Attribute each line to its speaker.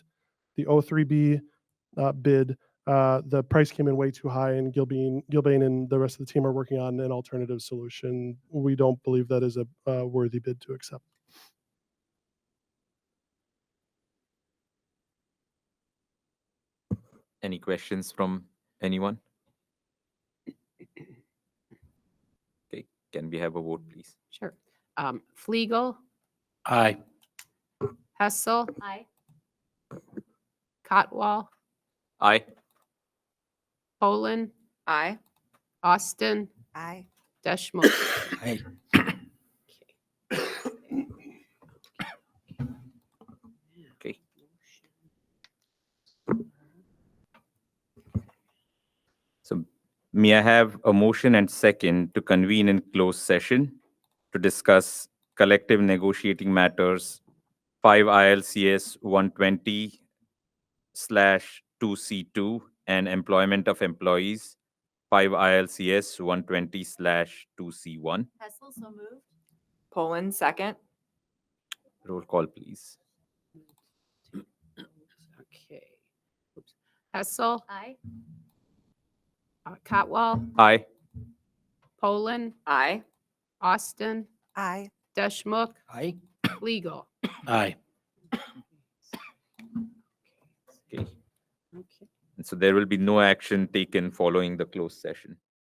Speaker 1: the O3B uh, bid. Uh, the price came in way too high, and Gilbane, Gilbane and the rest of the team are working on an alternative solution. We don't believe that is a uh, worthy bid to accept.
Speaker 2: Any questions from anyone? Okay, can we have a vote, please?
Speaker 3: Sure. Um, Fliegel,
Speaker 4: Aye.
Speaker 3: Hessel. Aye. Cotwall,
Speaker 2: Aye.
Speaker 3: Poland,
Speaker 5: Aye.
Speaker 3: Austin,
Speaker 5: Aye.
Speaker 3: Deschmok.
Speaker 4: Aye.
Speaker 2: Okay. So may I have a motion and second to convene in closed session to discuss collective negotiating matters, five ILCS one twenty slash two C two and employment of employees, five ILCS one twenty slash two C one.
Speaker 5: Hessel, so moved. Poland, second.
Speaker 2: Roll call, please.
Speaker 3: Okay. Oops. Hessel. Aye. Cotwall,
Speaker 2: Aye.
Speaker 3: Poland,
Speaker 5: Aye.
Speaker 3: Austin,
Speaker 5: Aye.
Speaker 3: Deschmok,
Speaker 4: Aye.
Speaker 3: Fliegel.
Speaker 4: Aye.
Speaker 2: Okay.
Speaker 3: Okay.
Speaker 2: And so there will be no action taken following the closed session.